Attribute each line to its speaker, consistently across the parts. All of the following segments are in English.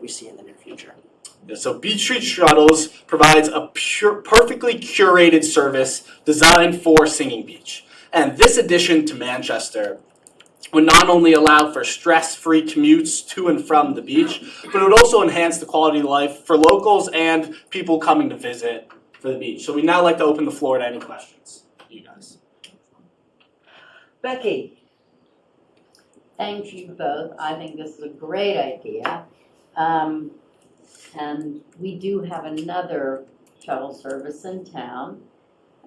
Speaker 1: we see in the near future.
Speaker 2: So Beach Street Shuttles provides a pure, perfectly curated service designed for Singing Beach. And this addition to Manchester would not only allow for stress-free commutes to and from the beach, but it would also enhance the quality of life for locals and people coming to visit for the beach. So we now like to open the floor to any questions, you guys.
Speaker 3: Becky, thank you both. I think this is a great idea. Um, and we do have another shuttle service in town,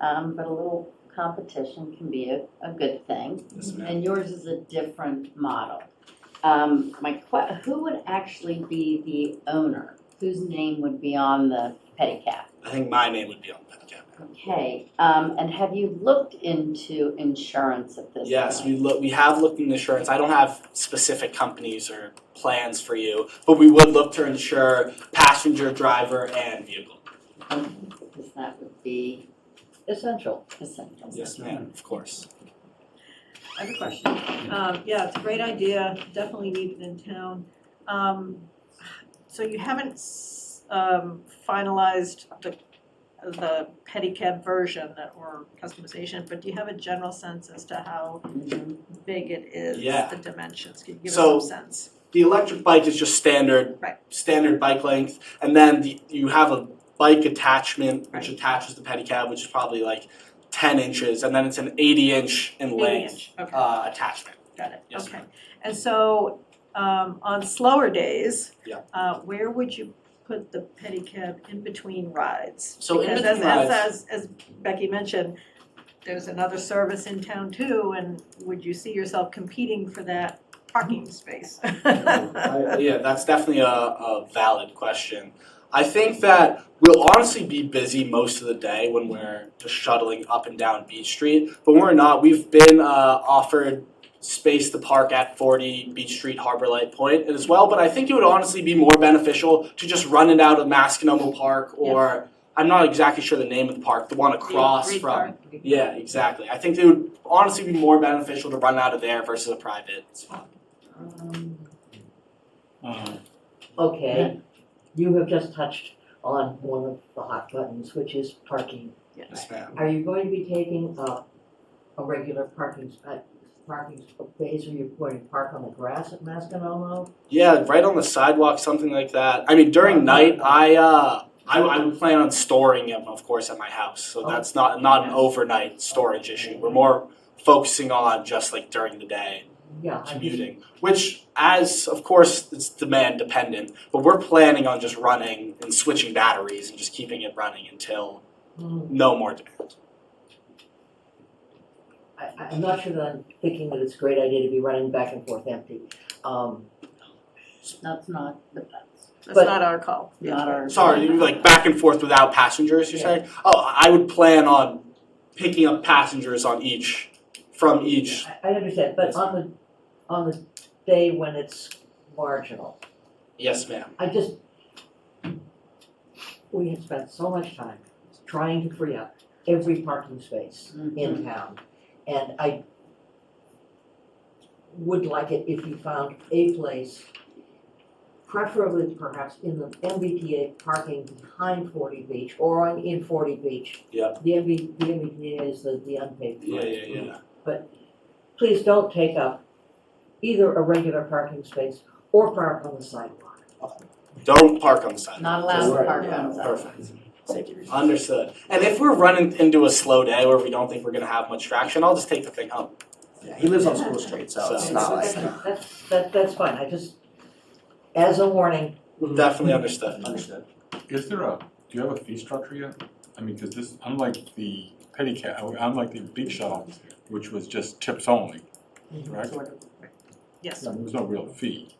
Speaker 3: um, but a little competition can be a, a good thing.
Speaker 2: Yes, ma'am.
Speaker 3: And yours is a different model. Um, my que- who would actually be the owner? Whose name would be on the pedicab?
Speaker 2: I think my name would be on that cap.
Speaker 3: Okay, um, and have you looked into insurance at this point?
Speaker 2: Yes, we look. We have looked into insurance. I don't have specific companies or plans for you, but we would look to insure passenger, driver, and vehicle.
Speaker 3: Because that would be essential. Essential.
Speaker 2: Yes, ma'am. Of course.
Speaker 4: I have a question. Um, yeah, it's a great idea, definitely needed in town. Um, so you haven't, s- um, finalized the, the pedicab version that- or customization, but do you have a general sense as to how
Speaker 3: Mhm.
Speaker 4: big it is,
Speaker 2: Yeah.
Speaker 4: the dimensions? Can you give us
Speaker 2: So-
Speaker 4: some sense?
Speaker 2: The electric bike is just standard,
Speaker 4: Right.
Speaker 2: standard bike length, and then the, you have a bike attachment which
Speaker 4: Right.
Speaker 2: attaches the pedicab, which is probably like ten inches, and then it's an eighty-inch in length
Speaker 4: Eight inch, okay.
Speaker 2: uh, attachment.
Speaker 4: Got it,
Speaker 2: Yes,
Speaker 4: okay.
Speaker 2: ma'am.
Speaker 4: And so, um, on slower days,
Speaker 2: Yeah.
Speaker 4: uh, where would you put the pedicab in between rides?
Speaker 2: So in
Speaker 4: Because
Speaker 2: between
Speaker 4: as,
Speaker 2: rides-
Speaker 4: as, as, as Becky mentioned, there's another service in town too, and would you see yourself competing for that parking space?
Speaker 2: I- yeah, that's definitely a, a valid question. I think that we'll honestly be busy most of the day when we're just shuttling up and down Beach Street, but we're not. We've been uh, offered space to park at 40 Beach Street Harbor Light Point as well, but I think it would honestly be more beneficial to just run it out of Masconomo Park or I'm not exactly sure the name of the park, the one across
Speaker 4: Reed
Speaker 2: from.
Speaker 4: Park.
Speaker 2: Yeah, exactly. I think it would honestly be more beneficial to run out of there versus a private spot.
Speaker 3: Um,
Speaker 5: Okay, you have just touched on one of the hot buttons, which is parking.
Speaker 2: Yes, ma'am.
Speaker 5: Are you going to be taking a, a regular parking spot, parking space, or you're going to park on the grass at Masconomo?
Speaker 2: Yeah, right on the sidewalk, something like that. I mean, during night, I uh, I, I would plan on storing them, of course, at my house. So
Speaker 5: Oh.
Speaker 2: that's not not an overnight storage issue. We're more focusing on just like during the day
Speaker 5: Yeah, I mean,
Speaker 2: commuting, which as of course it's demand dependent, but we're planning on just running and switching batteries and just keeping it running until
Speaker 5: mm,
Speaker 2: no more demand.
Speaker 5: I, I- I'm not sure that I'm thinking that it's a great idea to be running back and forth empty. Um,
Speaker 3: That's not, that's
Speaker 4: That's
Speaker 5: But-
Speaker 4: not our call.
Speaker 3: not our.
Speaker 2: Sorry, you like back and forth without passengers, you're saying? Oh, I would plan on picking up passengers on each from each
Speaker 5: I, I understand, but on the, on the day when it's marginal,
Speaker 2: Yes, ma'am.
Speaker 5: I just, we have spent so much time trying to free up every parking space
Speaker 2: Mm-hmm.
Speaker 5: in town. And I would like it if you found a place, preferably perhaps in the MBTA parking behind forty beach or on in forty beach.
Speaker 2: Yep.
Speaker 5: The MB, the MBTA is the, the unpaid.
Speaker 2: Yeah, yeah, yeah.
Speaker 5: Please don't take up either a regular parking space or park on the sidewalk.
Speaker 2: Don't park on the sidewalk.
Speaker 3: Not allowed to park on the
Speaker 2: Yeah,
Speaker 3: sidewalk.
Speaker 2: Perfect. Understood. And if we're running into a slow day where we don't think we're gonna have much traction, I'll just take the thing home.
Speaker 6: Yeah, he lives on School Street, so it's
Speaker 2: So-
Speaker 6: not like.
Speaker 5: That's, that, that's fine, I just, as a warning,
Speaker 2: Definitely understood.
Speaker 6: Understood.
Speaker 7: Is there a, do you have a fee structure yet? I mean, because this, unlike the pedicab, unlike the big shuttle, which was just tips only, right?
Speaker 4: Yes,
Speaker 7: There was no real fee,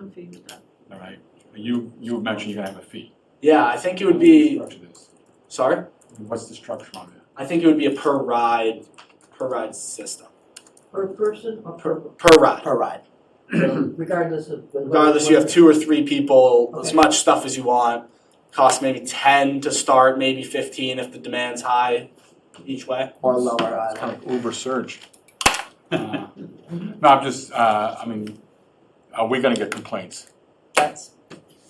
Speaker 4: no fee with that.
Speaker 7: all right? You, you mentioned you're gonna have a fee.
Speaker 2: Yeah, I think it would
Speaker 7: What's the
Speaker 2: be,
Speaker 7: structure of this?
Speaker 2: sorry?
Speaker 7: What's the structure on it?
Speaker 2: I think it would be a per ride, per ride system.
Speaker 5: per person or per,
Speaker 2: Per ride.
Speaker 6: Per ride.
Speaker 5: regardless of. whether-
Speaker 2: Regardless, you have two or three people, as
Speaker 5: Okay.
Speaker 2: much stuff as you want. Costs maybe ten to start, maybe fifteen if the demand's high each way.
Speaker 6: Or lower
Speaker 7: It's
Speaker 6: either.
Speaker 7: kind of over surge. uh, No, I'm just, uh, I mean, are we gonna get complaints?
Speaker 3: That's